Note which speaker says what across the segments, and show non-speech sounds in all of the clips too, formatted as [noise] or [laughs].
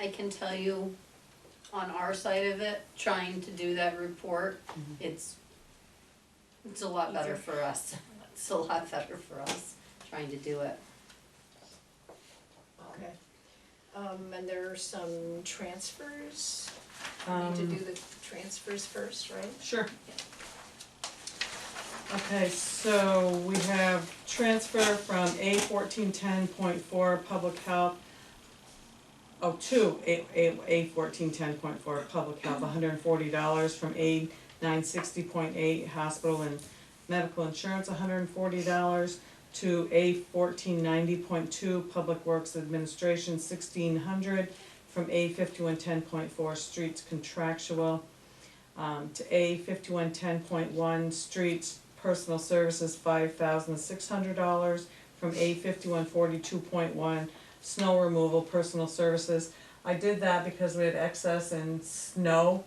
Speaker 1: I can tell you, on our side of it, trying to do that report, it's, it's a lot better for us. [laughs] It's a lot better for us, trying to do it.
Speaker 2: Okay. Um, and there are some transfers, we need to do
Speaker 3: Um,
Speaker 2: the transfers first, right?
Speaker 3: sure. Okay, so we have transfer from A fourteen ten point four, public health. Oh, to A, A, A fourteen ten point four, public health, hundred and forty dollars from A nine sixty point eight, hospital and medical insurance, hundred and forty dollars. To A fourteen ninety point two, public works administration, sixteen hundred, from A fifty-one ten point four, streets contractual um, to A fifty-one ten point one, streets, personal services, five thousand six hundred dollars, from A fifty-one forty-two point one, snow removal, personal services. I did that because we had excess in snow,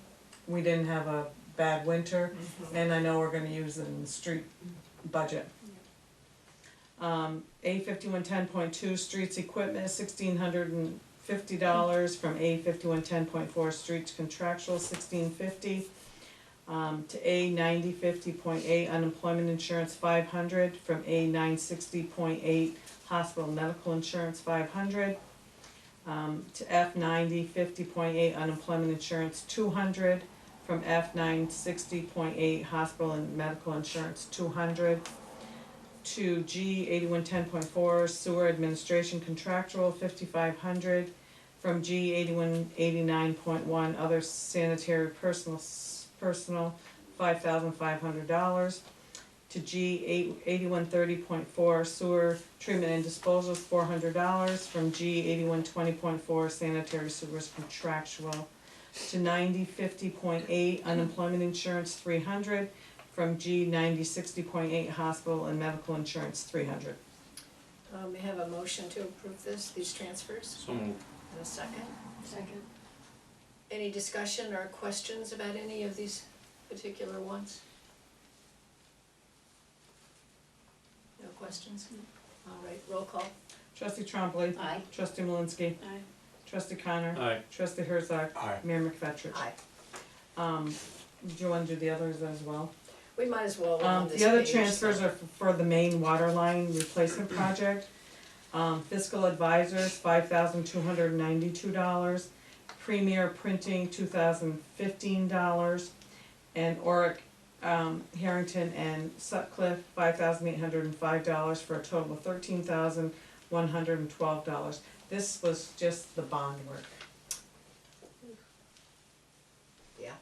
Speaker 3: we didn't have a bad winter, and I know we're gonna use it in the street budget. Um, A fifty-one ten point two, streets equipment, sixteen hundred and fifty dollars, from A fifty-one ten point four, streets contractual, sixteen fifty um, to A ninety fifty point eight, unemployment insurance five hundred, from A nine sixty point eight, hospital medical insurance five hundred, um, to F ninety fifty point eight, unemployment insurance two hundred, from F nine sixty point eight, hospital and medical insurance two hundred, to G eighty-one ten point four, sewer administration contractual fifty-five hundred, from G eighty-one eighty-nine point one, other sanitary personal, s- personal, five thousand five hundred dollars. To G eight, eighty-one thirty point four, sewer treatment and disposal, four hundred dollars, from G eighty-one twenty point four, sanitary sewers contractual. To ninety fifty point eight, unemployment insurance, three hundred, from G ninety sixty point eight, hospital and medical insurance, three hundred.
Speaker 2: Um, we have a motion to approve this, these transfers,
Speaker 4: So moved.
Speaker 2: in a second.
Speaker 1: Second.
Speaker 2: Any discussion or questions about any of these particular ones? No questions? All right, roll call.
Speaker 3: Trustee Trombley,
Speaker 1: Aye.
Speaker 3: trustee Malinsky,
Speaker 1: Aye.
Speaker 3: trustee Connor,
Speaker 4: Aye.
Speaker 3: trustee Herzog,
Speaker 4: Aye.
Speaker 3: Mayor McFetrich.
Speaker 2: Aye.
Speaker 3: Um, do you wanna do the others as well?
Speaker 2: We might as well on
Speaker 3: Um,
Speaker 2: this
Speaker 3: the other
Speaker 2: page,
Speaker 3: transfers
Speaker 2: so-
Speaker 3: are f- for the main water line replacement project. Um, fiscal advisors, five thousand two hundred and ninety-two dollars, Premier Printing, two thousand fifteen dollars, and Oric, um, Harrington and Sutcliffe, five thousand eight hundred and five dollars, for a total of thirteen thousand one hundred and twelve dollars. This was just the bond work.
Speaker 2: Yeah.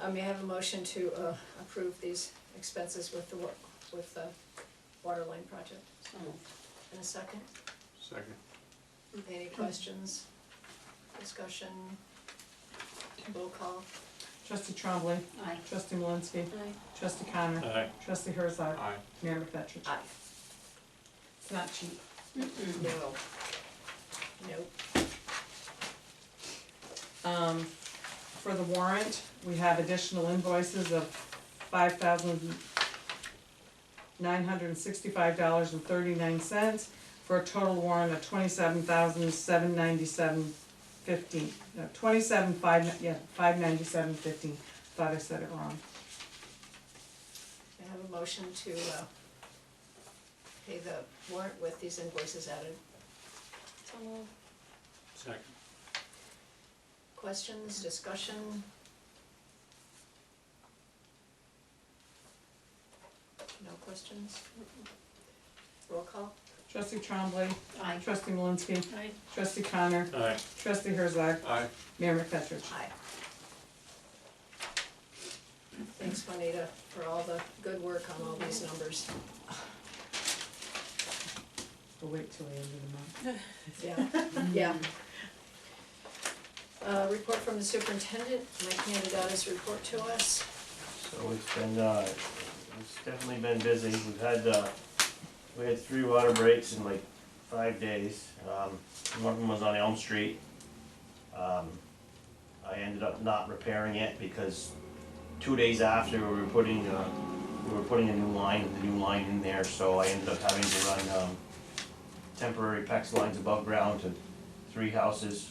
Speaker 2: Um, you have a motion to, uh, approve these expenses with the, wa- with the water line project.
Speaker 1: So moved.
Speaker 2: In a second,
Speaker 4: Second.
Speaker 2: any questions, discussion, roll call?
Speaker 3: Trustee Trombley,
Speaker 1: Aye.
Speaker 3: trustee Malinsky,
Speaker 1: Aye.
Speaker 3: trustee Connor,
Speaker 4: Aye.
Speaker 3: trustee Herzog,
Speaker 4: Aye.
Speaker 3: Mayor McFetrich.
Speaker 2: Aye.
Speaker 3: It's not cheap.
Speaker 2: No. Nope.
Speaker 3: Um, for the warrant, we have additional invoices of five thousand nine hundred and sixty-five dollars and thirty-nine cents for a total warrant of twenty-seven thousand seven ninety-seven fifteen, no, twenty-seven five, yeah, five ninety-seven fifteen, thought I said it wrong.
Speaker 2: I have a motion to, uh, pay the warrant with these invoices added.
Speaker 4: Second.
Speaker 2: Questions, discussion? No questions? Roll call?
Speaker 3: Trustee Trombley,
Speaker 1: Aye.
Speaker 3: trustee Malinsky,
Speaker 1: Aye.
Speaker 3: trustee Connor,
Speaker 4: Aye.
Speaker 3: trustee Herzog,
Speaker 4: Aye.
Speaker 3: Mayor McFetrich.
Speaker 2: Aye. Thanks, Juanita, for all the good work on all these numbers.
Speaker 3: We'll wait till the end of the month.
Speaker 2: Yeah, yeah. Uh, report from the superintendent, Mike handed out his report to us.
Speaker 5: So it's been, uh, it's definitely been busy, we've had, uh, we had three water breaks in like five days, um, one of them was on Elm Street. Um, I ended up not repairing it because two days after, we were putting, uh, we were putting a new line, the new line in there, so I ended up having to run, um, temporary PEX lines above ground to, three houses